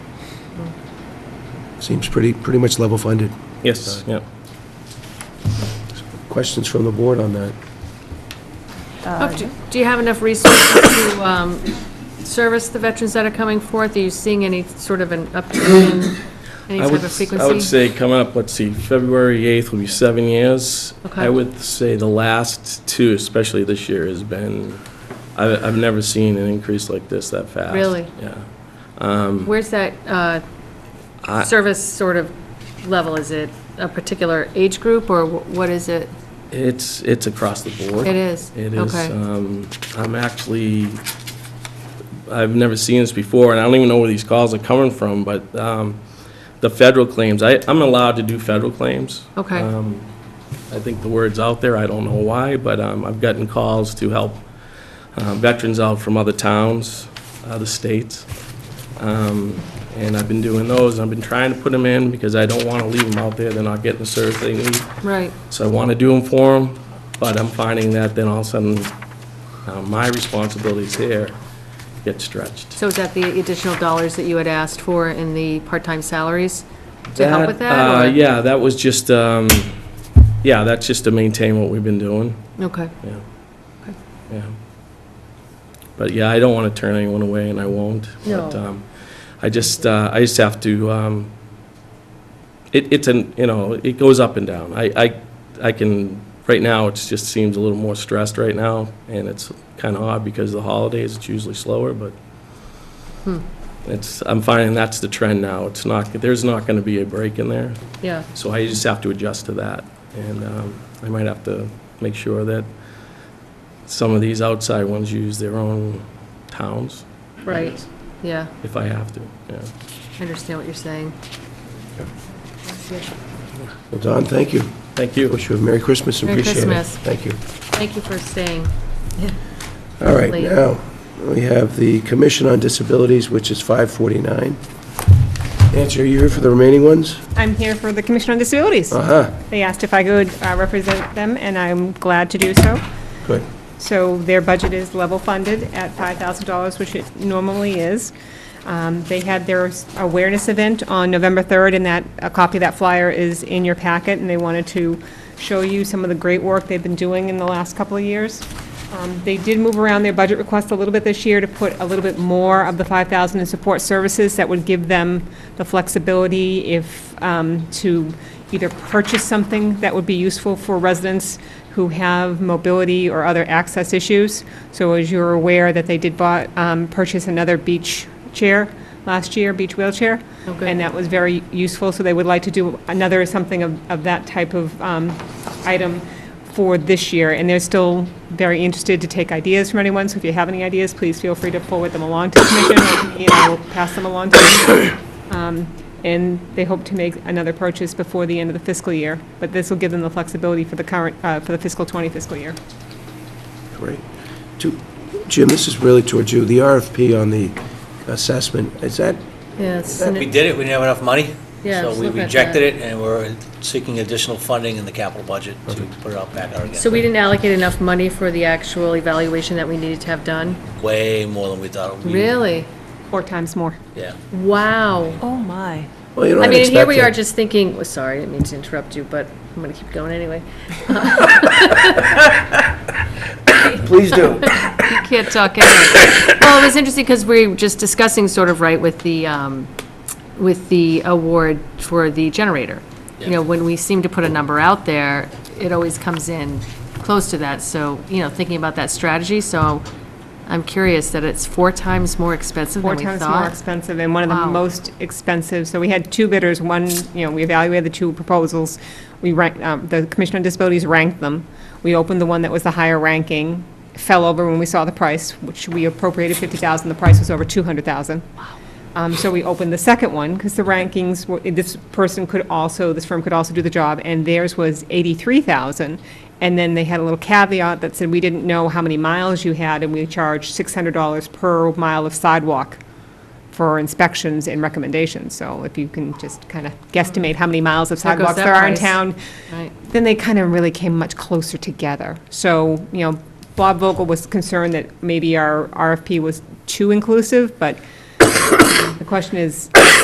Seems pretty, pretty much level funded. Yes, yeah. Questions from the board on that? Oh, Do do you have enough resources to um, service the veterans that are coming forth? Are you seeing any sort of an uptick in I any type would, of I would frequency? say coming up, let's see, February 8th will be seven years. Okay. I would say the last two, especially this year, has been, I've, I've never seen an increase like this that fast. Really? Yeah. Where's that uh, I- service sort of level? Is it a particular age group, or wh- what is it? It's, it's across the board. It is? It is. Okay. um, I'm actually, I've never seen this before, and I don't even know where these calls are coming from, but um, the federal claims, I, I'm allowed to do federal claims. Okay. Um, I think the word's out there, I don't know why, but um, I've gotten calls to help uh, veterans out from other towns, other states. Um, And I've been doing those, I've been trying to put them in because I don't want to leave them out there, they're not getting the service they need. Right, So I want to do them for them, but I'm finding that then all of a sudden, uh, my responsibilities here get stretched. so is that the additional dollars that you had asked for in the part-time salaries to help with that? Uh, or- Yeah, that was just, um, yeah, that's just to maintain what we've been doing, Okay, yeah. Okay. Yeah. But yeah, I don't want to turn anyone away, and I won't. But, No. um, I just, uh, I just have to, um, it, it's an, you know, it goes up and down. I, I, I can, right now, it just seems a little more stressed right now, and it's kind of odd because of the holidays, it's usually slower, but it's, I'm finding that's the trend now. It's not, there's not going to be a break in there, yeah, so I just have to adjust to that. And um, I might have to make sure that some of these outside ones use their own towns, right, yeah, if I have to, yeah. I understand what you're saying. Well, Don, thank you. Thank you. Wish you a Merry Christmas and Merry appreciate it. Christmas. Thank you. Thank you for staying. All right, Late. now, we have the Commission on Disabilities, which is 549. Nancy, are you here for the remaining ones? I'm here for the Commission on Disabilities. Uh-huh, They asked if I could uh, represent them, and I'm glad to do so. good. So their budget is level funded at $5,000, which it normally is. Um, They had their awareness event on November 3rd, and that, a copy of that flyer is in your packet, and they wanted to show you some of the great work they've been doing in the last couple of years. Um, They did move around their budget request a little bit this year to put a little bit more of the 5,000 in support services. That would give them the flexibility if, um, to either purchase something that would be useful for residents who have mobility or other access issues. So as you're aware that they did bought, um, purchase another beach chair last year, beach wheelchair. Oh, good. And that was very useful, so they would like to do another something of, of that type of, um, item for this year. And they're still very interested to take ideas from anyone, so if you have any ideas, please feel free to forward them along to the commission, and I will pass them along to them. Um, And they hope to make another purchase before the end of the fiscal year, but this will give them the flexibility for the current, uh, for the fiscal 20 fiscal year. Great. To- Jim, this is really towards you. The RFP on the assessment, is that, Yes. We did it, we didn't have enough money. Yeah, I was So we looking at rejected that. it, and we're seeking additional funding in the capital budget to put it out back out again. So we didn't allocate enough money for the actual evaluation that we needed to have done? Way more than we thought. we- Really? Four times more. Yeah. Wow. Oh, my. well, you don't I mean, and expect here we are that. just thinking, well, sorry, I didn't mean to interrupt you, but I'm going to keep going anyway. Please do. You can't talk anyway. Well, it was interesting because we were just discussing sort of, right, with the, um, with the award for the generator. You know, when we seem to put a number out there, it always comes in close to that. So, you know, thinking about that strategy, so I'm curious that it's four times more expensive Four than we thought. times more expensive and one of Wow. the most expensive. So we had two bidders, one, you know, we evaluated the two proposals. We ranked, um, the Commission on Disabilities ranked them. We opened the one that was the higher ranking, fell over when we saw the price, which we appropriated 50,000, the price was over 200,000. Um, so we opened the second one, because the rankings, were- this person could also, this firm could also do the job, and theirs was 83,000. And then they had a little caveat that said, we didn't know how many miles you had, and we charged $600 per mile of sidewalk for inspections and recommendations. So if you can just kind of guesstimate how many miles of There goes sidewalks that there are in price. town, Right. then they kind of really came much closer together. So, you know, Bob Vogel was concerned that maybe our RFP was too inclusive, but the question is,